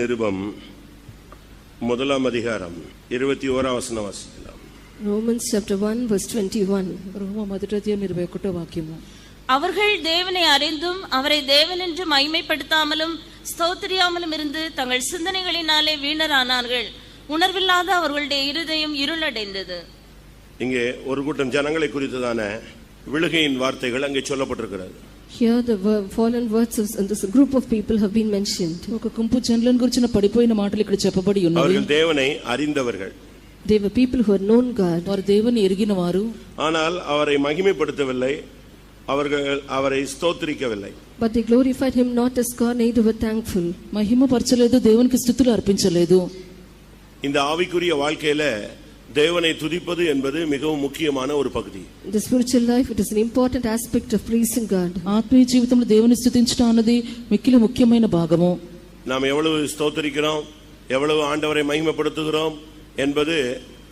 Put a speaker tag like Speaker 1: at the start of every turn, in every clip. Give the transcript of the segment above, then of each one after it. Speaker 1: நிருபம் முதலாம் அதிகாரம் இருபத்தி ஓராம் வசனம் வாசிக்கலாம்
Speaker 2: Romans chapter 1 verse 21.
Speaker 3: రోమ మొదటి అధ్యాయం ఇరవై ఒకటో వాక్యము
Speaker 4: அவர்கள் தேவனை அறிந்தும் அவரை தேவனென்று மைமைப்படுத்தாமலும் ஸ்தோத்திரியாமலும் இருந்து தங்கள் சிந்தனைகளினாலே வீணரானார்கள் உணர்வில்லாத அவர்களுடைய இருதயம் இருளடைந்தது
Speaker 1: இங்கே ஒரு கூட்டம் ஜனங்களை குறித்ததான விழுகையின் வார்த்தைகள் அங்கே சொல்லப்பட்டிருக்கிறது
Speaker 2: Here the ver- fallen words of and this group of people have been mentioned.
Speaker 3: ఒక గుంపు జనులను గురించిన పడిపోయిన మాటలు ఇక్కడ చెప్పబడి ఉన్నవి
Speaker 1: அவர்கள் தேவனை அறிந்தவர்கள்
Speaker 2: They were people who had known God,
Speaker 3: వారు దేవుని ఎరిగిన వారు
Speaker 1: ஆனால் அவரை மகிமைப்படுத்தவில்லை அவர்கள் அவரை ஸ்தோத்திரிக்கவில்லை
Speaker 2: but they glorified him not as God, neither were thankful.
Speaker 3: మహిమపరచలేదు దేవునికి స్థుతులు అర్పించలేదు
Speaker 1: இந்த ஆவிக்குரிய வாழ்க்கையில தேவனை துதிப்பது என்பது மிகவும் முக்கியமான ஒரு பகுதி
Speaker 2: In the spiritual life, it is an important aspect of praising God.
Speaker 3: ఆత్మీయ జీవితంలో దేవుని స్థుతించడం అన్నది మిక్కిలి ముఖ్యమైన భాగము
Speaker 1: நாம் எவ்வளவு ஸ்தோத்திரிக்கிறோம் எவ்வளவு ஆண்டவரை மகிமைப்படுத்துகிறோம் என்பது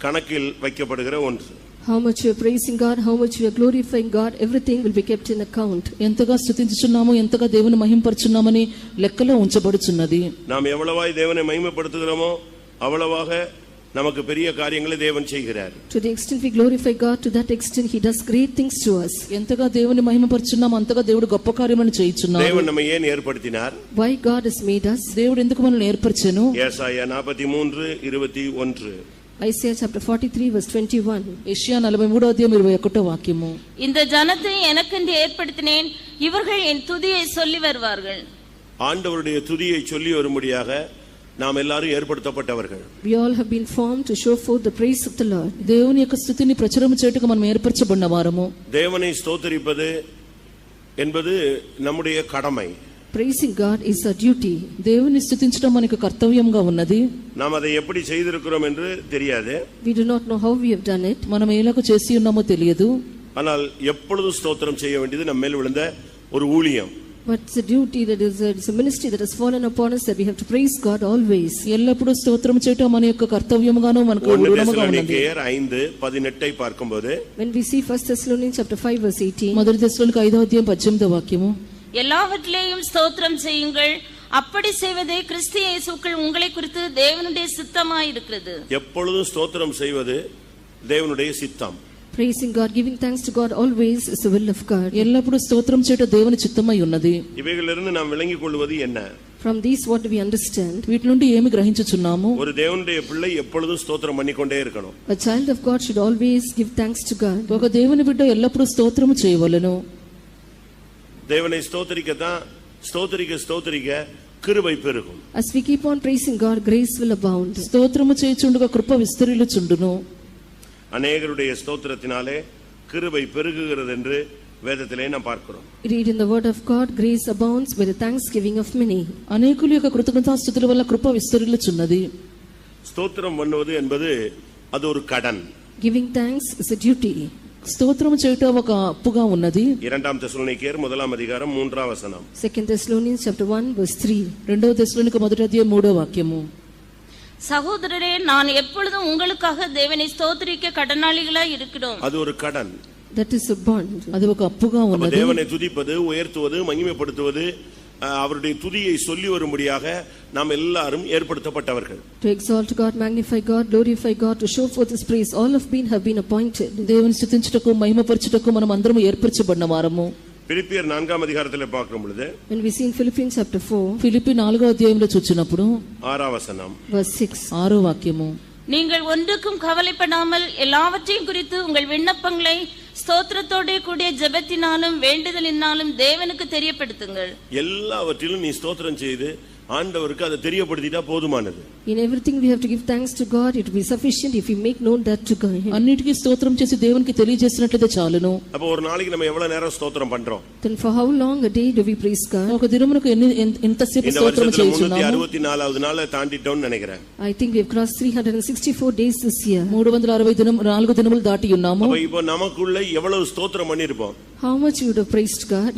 Speaker 1: கணக்கில் வைக்கப்படுகிற ஒன்று
Speaker 2: How much we are praising God, how much we are glorifying God, everything will be kept in account.
Speaker 3: ఎంతగా స్థుతించుచున్నాము ఎంతగా దేవుని మహింపరచున్నామని లెక్కలో ఉంచబడుచున్నది
Speaker 1: நாம் எவ்வளவாய் தேவனை மகிமைப்படுத்துகிறோமோ அவ்வளவாக நமக்கு பெரிய காரியங்களை தேவன் செய்கிறார்
Speaker 2: To the extent we glorify God, to that extent he does great things to us.
Speaker 3: ఎంతగా దేవుని మహిమపరుచున్నాము అంతగా దేవుడు గొప్ప కార్యములను చేయుచున్నాడు
Speaker 1: தேவன் நம்மை ஏன் ஏற்படுத்தினார்
Speaker 2: Why God has made us?
Speaker 3: దేవుడు ఎందుకు మనల్ని ఏర్పరిచాను
Speaker 1: ஏசாயா நாற்பத்தி மூன்று இருபத்தி ஒன்று
Speaker 2: Isaiah chapter 43 verse 21.
Speaker 3: ఏషియా నలభై మూడో అధ్యాయం ఇరవై ఒకటో వాక్యము
Speaker 4: இந்த ஜனத்தை எனக்கென்று ஏற்படுத்தினேன் இவர்கள் என் துதியை சொல்லி வருவார்கள்
Speaker 1: ஆண்டவருடைய துதியை சொல்லி வரும்படியாக நாம் எல்லாரும் ஏற்படுத்தப்பட்டவர்கள்
Speaker 2: We all have been formed to show forth the praise of the Lord.
Speaker 3: దేవుని యొక్క స్థుతిని ప్రచురం చేయుటకు మనం ఏర్పరచబడిన వారము
Speaker 1: தேவனை ஸ்தோத்தரிப்பது என்பது நம்முடைய கடமை
Speaker 2: Praising God is our duty.
Speaker 3: దేవుని స్థుతించడం మనకు కర్తవ్యంగా ఉన్నది
Speaker 1: நாம் அதை எப்படி செய்திருக்கிறோம் என்று தெரியாது
Speaker 2: We do not know how we have done it,
Speaker 3: మనం ఎలాగ చేసి ఉన్నామో తెలియదు
Speaker 1: ஆனால் எப்பொழுதும் ஸ்தோத்திரம் செய்ய வேண்டியது நம்ம மேல் விழுந்த ஒரு ஊழியம்
Speaker 2: but it's a duty that is a, it's a ministry that has fallen upon us that we have to praise God always.
Speaker 3: ఎల్లప్పుడూ స్తోత్రం చేయటం మన యొక్క కర్తవ్యంగాను మనకు
Speaker 1: ஒன்று
Speaker 3: ఊరుడముగా ఉన్నది
Speaker 1: தேசலோனிக்கேயர் ஐந்து பதினெட்டை பார்க்கும்போது
Speaker 2: When we see 1 Thessalonians chapter 5 verse 18,
Speaker 3: మొదటి దశలోనికి ఐదో అధ్యాయం పద్దెనిమిదో వాక్యము
Speaker 4: எல்லாவற்றிலேயும் ஸ்தோத்திரம் செய்யுங்கள் அப்படி செய்வதே கிறிஸ்து இயேசுக்குள் உங்களை குறித்து தேவனுடைய சித்தமாயிருக்கிறது
Speaker 1: எப்பொழுதும் ஸ்தோத்திரம் செய்வது தேவனுடைய சித்தம்
Speaker 2: praising God, giving thanks to God always is the will of God.
Speaker 3: ఎల్లప్పుడూ స్తోత్రం చేయటం దేవుని చిత్తమై ఉన్నది
Speaker 1: இவைகளிலிருந்து நாம் விளங்கிக் கொள்வது என்ன
Speaker 2: From these what do we understand?
Speaker 3: వీటి నుండి ఏమి గ్రహించుచున్నాము
Speaker 1: ஒரு தேவனுடைய பிள்ளை எப்பொழுதும் ஸ்தோத்திரம் பண்ணிக்கொண்டே இருக்கணும்
Speaker 2: A child of God should always give thanks to God.
Speaker 3: ఒక దేవుని బిడ్డ ఎల్లప్పుడూ స్తోత్రము చేయవలెను
Speaker 1: தேவனை ஸ்தோத்தரிக்கத்தான் ஸ்தோத்தரிக்க ஸ்தோத்தரிக்க கிருபை பெருகும்
Speaker 2: As we keep on praising God, grace will abound.
Speaker 3: స్తోత్రము చేయుచుండగా కృప విస్తరిల్లుచుండును
Speaker 1: அநேகருடைய ஸ்தோத்திரத்தினாலே கிருபை பெருகுகிறது என்று வேதத்திலே நாம் பார்க்கிறோம்
Speaker 2: We Read in the word of God, grace abounds by the thanksgiving of many.
Speaker 3: అనేకుల యొక్క కృతజ్ఞతాస్థుతుల వల్ల కృప విస్తరిల్లుచున్నది
Speaker 1: ஸ்தோத்திரம் பண்ணுவது என்பது அது ஒரு கடன்
Speaker 2: Giving thanks is a duty.
Speaker 3: స్తోత్రము చేయటం ఒక అప్పుగా ఉన్నది
Speaker 1: இரண்டாம் தெசலோனிக்கேயர் முதலாம் அதிகாரம் மூன்றாம் வசனம்
Speaker 2: 2 Thessalonians chapter 1 verse 3.
Speaker 3: రెండవ దశలోనికి మొదటి అధ్యాయం మూడో వాక్యము
Speaker 4: சகோதரரே நான் எப்பொழுதும் உங்களுக்காக தேவனை ஸ்தோத்திரிக்க கடனாளிகளாய் இருக்கிறோம்
Speaker 1: அது ஒரு கடன்
Speaker 2: That is a bond.
Speaker 3: అది ఒక అప్పుగా
Speaker 1: அப்ப
Speaker 3: ఉన్నది
Speaker 1: தேவனை துதிப்பது உயர்த்துவது மகிமைப்படுத்துவது அஹ், அவருடைய துதியை சொல்லி வரும்படியாக நாம் எல்லாரும் ஏற்படுத்தப்பட்டவர்கள்
Speaker 2: To exalt God, magnify God, glorify God, to show forth His praise, all have been have been appointed.
Speaker 3: దేవుని స్థుతించుటకు మహిమపరచుటకు మనం అందరం ఏర్పరచబడిన వారము
Speaker 1: பிரிப்பியர் நான்காம் அதிகாரத்தில் பார்க்கும் பொழுது
Speaker 2: When we see in Philippians chapter 4,
Speaker 3: Philippi నాలుగో అధ్యాయంలో చూచినప్పుడు
Speaker 1: ஆறாம் வசனம்
Speaker 2: verse 6,
Speaker 3: ఆరో వాక్యము
Speaker 4: நீங்கள் ஒன்றுக்கும் கவலைப்படாமல் எல்லாவற்றையும் குறித்து உங்கள் விண்ணப்பங்களை ஸ்தோத்திரத்தோடே கூடிய ஜெபத்தினாலும் வேண்டுதலினாலும் தேவனுக்கு தெரியப்படுத்துங்கள்
Speaker 1: எல்லாவற்றிலும் நீ ஸ்தோத்திரம் செய்து ஆண்டவருக்கு அதை தெரியப்படுத்திட்டா போதுமானது
Speaker 2: in everything we have to give thanks to God, it will be sufficient if we make known that to God.
Speaker 3: అన్నిటికీ స్తోత్రం చేసి దేవునికి తెలియజేసినట్లయితే చాలును
Speaker 1: அப்போ ஒரு நாளைக்கு நம்ம எவ்வளவு நேரம் ஸ்தோத்திரம் பண்றோம்
Speaker 2: Then for how long a day do we praise God?
Speaker 3: ఒక దినమునకు ఎన్ని ఎంత- ఎంతసేపు
Speaker 1: இந்த
Speaker 3: స్తోత్రం
Speaker 1: வருஷத்துல முன்னூத்தி
Speaker 3: చేయుచున్నాము
Speaker 1: அறுபத்தி நாலாவது நாளை தாண்டிட்டோம்னு நினைக்கிறேன்
Speaker 2: I think we have crossed 364 days this year.
Speaker 3: మూడు వందల అరవై దినం నాలుగు దినములు దాటి ఉన్నాము
Speaker 1: அப்ப இப்போ நமக்குள்ள எவ்வளவு ஸ்தோத்திரம் பண்ணிருப்போம்
Speaker 2: How much you would have praised God?